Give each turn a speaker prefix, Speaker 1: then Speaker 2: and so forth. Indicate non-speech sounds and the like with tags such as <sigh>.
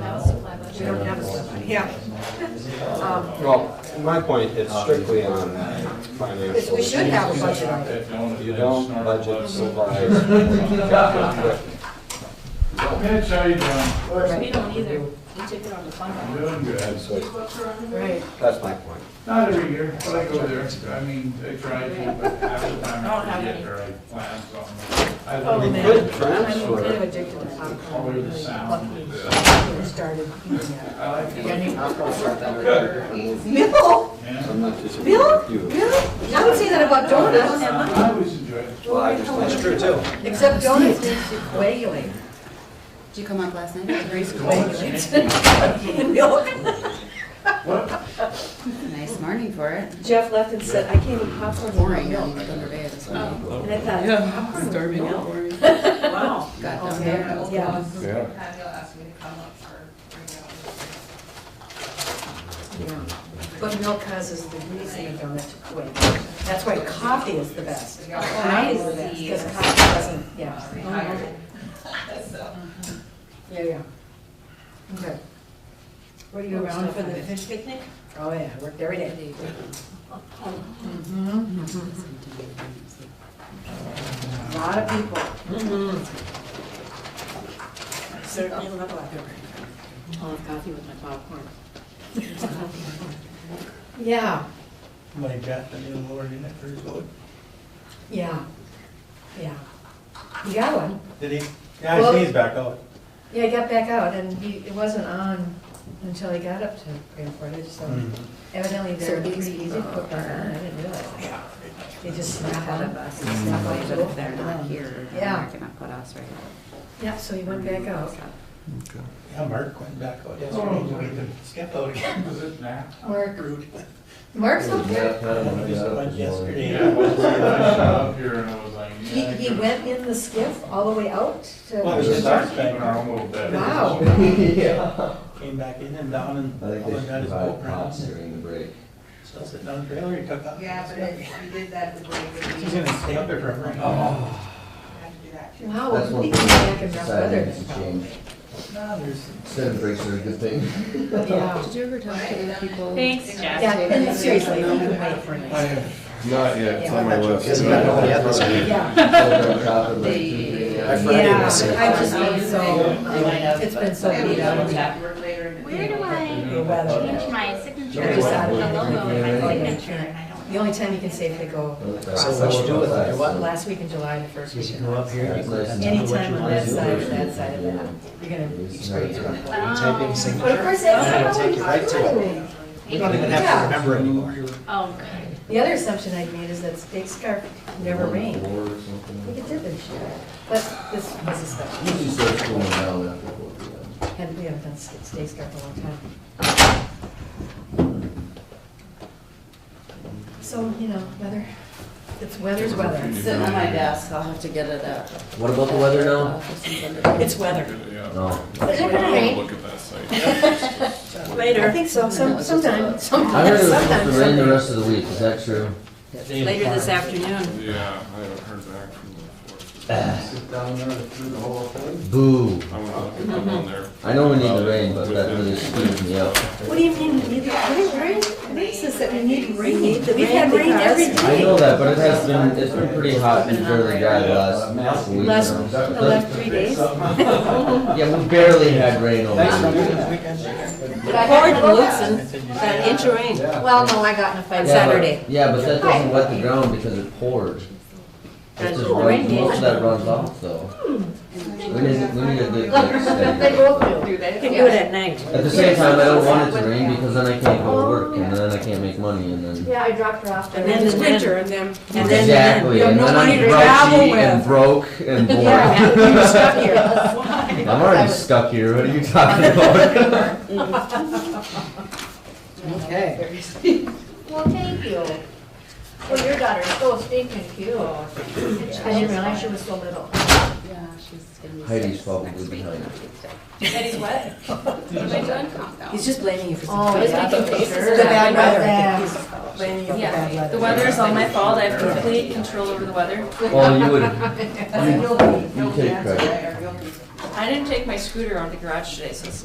Speaker 1: We don't have a supply, yeah. Um,
Speaker 2: Well, my point is strictly on
Speaker 1: it's-
Speaker 2: financial.
Speaker 1: We should have a budget on it.
Speaker 2: You don't budget supplies.
Speaker 3: Mitch, how you doing?
Speaker 4: We don't either. We took it on the fund
Speaker 3: I'm
Speaker 4: balance.
Speaker 3: doing good.
Speaker 1: Right.
Speaker 2: That's my point.
Speaker 3: Not every year, but I go there. I mean, I try to, but half the time I forget or I plan something. I
Speaker 1: Oh,
Speaker 2: We
Speaker 3: leave
Speaker 1: man.
Speaker 2: could
Speaker 1: I'm kind of
Speaker 2: transfer,
Speaker 1: addicted to popcorn.
Speaker 3: Color the sound.
Speaker 1: Fucking started eating that.
Speaker 3: I like it.
Speaker 1: Bill,
Speaker 3: Yeah.
Speaker 2: I'm not disagreeing
Speaker 1: Bill,
Speaker 2: with you.
Speaker 1: Bill, I would say that about donuts,
Speaker 3: I always enjoy it.
Speaker 2: Well, I just- That's true too.
Speaker 1: except donuts makes you quailing.
Speaker 5: Did you come up last night? It was Grace
Speaker 3: Donuts.
Speaker 1: Milk.
Speaker 3: What?
Speaker 5: Nice morning for it.
Speaker 1: Jeff left and said, I can't eat popcorn without
Speaker 5: Boring, on
Speaker 1: milk.
Speaker 5: Thunder Bay this morning.
Speaker 1: And I thought,
Speaker 5: Yeah, storming and boring. <laughs>
Speaker 1: wow.
Speaker 5: Got down there. and it was
Speaker 1: Yeah.
Speaker 5: awesome.
Speaker 1: Yeah. But milk causes the reason a donut to quit. That's why coffee is the best. Coffee is the best, because coffee doesn't, yeah. Yeah, yeah. Okay. What are you around for the fish picnic? Oh, yeah, I worked every day. Mm-hmm. A lot of people. Mm-hmm. Certainly a lot of people.
Speaker 4: I'll have coffee with my popcorn.
Speaker 1: Yeah,
Speaker 6: Somebody dropped a new word in it for his vote.
Speaker 1: yeah, yeah. You got one?
Speaker 6: Did he? Yeah, I see he's back out.
Speaker 1: Yeah, he got back out and he, it wasn't on until he got up to Grand Portage, so
Speaker 6: Mm.
Speaker 1: evidently
Speaker 5: So
Speaker 1: they're
Speaker 5: it makes
Speaker 1: pretty
Speaker 5: it
Speaker 1: easy
Speaker 5: easier.
Speaker 1: to put back on, I didn't realize. Yeah. They just snap
Speaker 5: Ahead
Speaker 1: out
Speaker 5: of
Speaker 1: of
Speaker 5: us,
Speaker 1: us.
Speaker 7: Mm.
Speaker 5: it's not like that if they're not here, they're
Speaker 1: Yeah. Oh,
Speaker 5: not gonna put us right.
Speaker 1: Yeah, so he went back out.
Speaker 6: Yeah, Mark went back out yesterday. Skip out again. <laughs>
Speaker 3: Was it Matt?
Speaker 1: Mark,
Speaker 6: Rude.
Speaker 1: Mark's up there?
Speaker 6: He just went
Speaker 3: Yeah, I
Speaker 6: yesterday.
Speaker 3: was there. I shot up here and I was like.
Speaker 1: He,
Speaker 3: yeah, I
Speaker 1: he
Speaker 3: could've-
Speaker 1: went in the skiff all the way out
Speaker 6: Well,
Speaker 1: to,
Speaker 6: it's-
Speaker 3: Just start keeping our own little bit.
Speaker 1: Wow.
Speaker 6: Came back in and down and
Speaker 7: I think
Speaker 6: all
Speaker 7: they
Speaker 6: I got
Speaker 7: should
Speaker 6: his
Speaker 7: provide
Speaker 6: boat
Speaker 7: props
Speaker 6: rounds.
Speaker 7: during the break.
Speaker 6: So I sit down trailer, he took off.
Speaker 8: Yeah, but if you did that, the break would be.
Speaker 6: He's gonna stay up there for a minute. Oh.
Speaker 8: Have to do that too.
Speaker 1: wow,
Speaker 7: That's
Speaker 1: he
Speaker 7: one
Speaker 1: came back in
Speaker 7: thing
Speaker 1: rough
Speaker 7: society
Speaker 1: weather.
Speaker 7: needs to change.
Speaker 6: No, there's,
Speaker 7: Instead of breaks are a good
Speaker 2: <laughs>
Speaker 7: thing.
Speaker 1: Yeah,
Speaker 5: Did you ever talk to the people?
Speaker 4: Thanks, Jeff.
Speaker 1: yeah, and seriously, he could wait for me.
Speaker 9: Not yet, it's on my list.
Speaker 7: Isn't that all the others?
Speaker 1: Yeah.
Speaker 7: Over on top of like two, three,
Speaker 5: They-
Speaker 7: yeah.
Speaker 1: Yeah, I've just been so, um,
Speaker 5: Yeah.
Speaker 1: it's been so
Speaker 8: Yeah, we
Speaker 1: beat
Speaker 8: can
Speaker 1: up.
Speaker 8: look at work later in the
Speaker 4: Where do I
Speaker 1: The weather.
Speaker 4: change my signature?
Speaker 1: I just
Speaker 4: The
Speaker 1: added it.
Speaker 4: logo of
Speaker 7: Yeah.
Speaker 4: my signature and I don't.
Speaker 1: The only time you can safely go
Speaker 7: So
Speaker 1: across,
Speaker 7: what you do with it?
Speaker 1: last week in July, and the first week in August.
Speaker 7: That's nice.
Speaker 1: Anytime on that side or that side of that, you're gonna Oh, experience
Speaker 7: Right.
Speaker 1: rough weather.
Speaker 4: Typing signature.
Speaker 1: But of course, that's not what
Speaker 4: We don't even
Speaker 1: have to
Speaker 4: remember anymore. Oh, good.
Speaker 1: The other assumption I'd made is that Big Scarf never rained.
Speaker 7: Or
Speaker 1: We
Speaker 7: something.
Speaker 1: could did this year, but this was a special.
Speaker 7: Usually starts cooling down after four P M.
Speaker 1: And we haven't done State Scarf in a long time. So, you know, weather, it's weather's weather.
Speaker 5: Sitting on my desk, I'll have to get it up.
Speaker 7: What about the weather now?
Speaker 5: now?
Speaker 1: It's weather.
Speaker 9: Yeah.
Speaker 7: No.
Speaker 1: Is it gonna rain?
Speaker 9: Look at that site.
Speaker 1: Later. I think so, some, sometime, sometime.
Speaker 7: I heard it was supposed to rain the rest of the week, is that true?
Speaker 5: Later this afternoon.
Speaker 9: Yeah, I haven't heard back from the forest.
Speaker 7: Sit down there through the whole thing? Boo.
Speaker 9: I'm gonna look at them on there.
Speaker 7: I know we need the rain, but that really screwed me up.
Speaker 1: What do you mean, we need, what is rain, what is this that we need rain? We've had rain every
Speaker 7: I
Speaker 1: day.
Speaker 7: know that, but it has been, it's been pretty hot and fairly dry the last week.
Speaker 1: Last,
Speaker 7: now.
Speaker 1: the last three days.
Speaker 7: Yeah, we barely had rain over here.
Speaker 5: Ford and
Speaker 6: I
Speaker 5: Lutzen,
Speaker 6: said, you
Speaker 5: got an inch of rain.
Speaker 1: Well, no, I got in a fight
Speaker 7: Yeah, but-
Speaker 1: Saturday.
Speaker 7: Yeah, but that doesn't wet the ground because it poured. It just runs, most of that runs off though. We need, we need a good mix
Speaker 1: They
Speaker 7: there.
Speaker 1: both do.
Speaker 8: Do that?
Speaker 4: Can do it at night.
Speaker 7: At the same time, I don't want it to rain because then I can't go to work and then I can't make money and then.
Speaker 1: Yeah, I dropped her off.
Speaker 4: And then it's winter and then, and then.
Speaker 7: Exactly,
Speaker 4: you have
Speaker 7: and
Speaker 4: no
Speaker 7: then
Speaker 4: money
Speaker 7: I'm
Speaker 4: to travel
Speaker 7: grouchy
Speaker 4: with.
Speaker 7: and broke and bored.
Speaker 4: Yeah, you're stuck here.
Speaker 7: I'm already stuck here, what are you talking about?
Speaker 5: Okay.
Speaker 1: Well, thank you. Well, your daughter is so stinking cute. I didn't realize she was so little.
Speaker 5: Yeah, she's gonna be
Speaker 7: Heidi's
Speaker 5: six
Speaker 7: probably
Speaker 5: next week
Speaker 7: behind.
Speaker 5: on Tuesday.
Speaker 4: Betty's what?
Speaker 5: Am I done? Countdown.
Speaker 4: He's just blaming you for
Speaker 1: Oh,
Speaker 4: something.
Speaker 1: he's making faces.
Speaker 4: The bad
Speaker 1: Yeah.
Speaker 4: weather. He's blaming you for bad
Speaker 5: Yeah,
Speaker 4: weather.
Speaker 5: the weather is all my fault, I have complete control over the weather.
Speaker 7: Well, you
Speaker 1: <laughs>
Speaker 7: would, you, you take credit.
Speaker 8: Or you'll be-
Speaker 5: I didn't take my scooter out of the garage today, so it's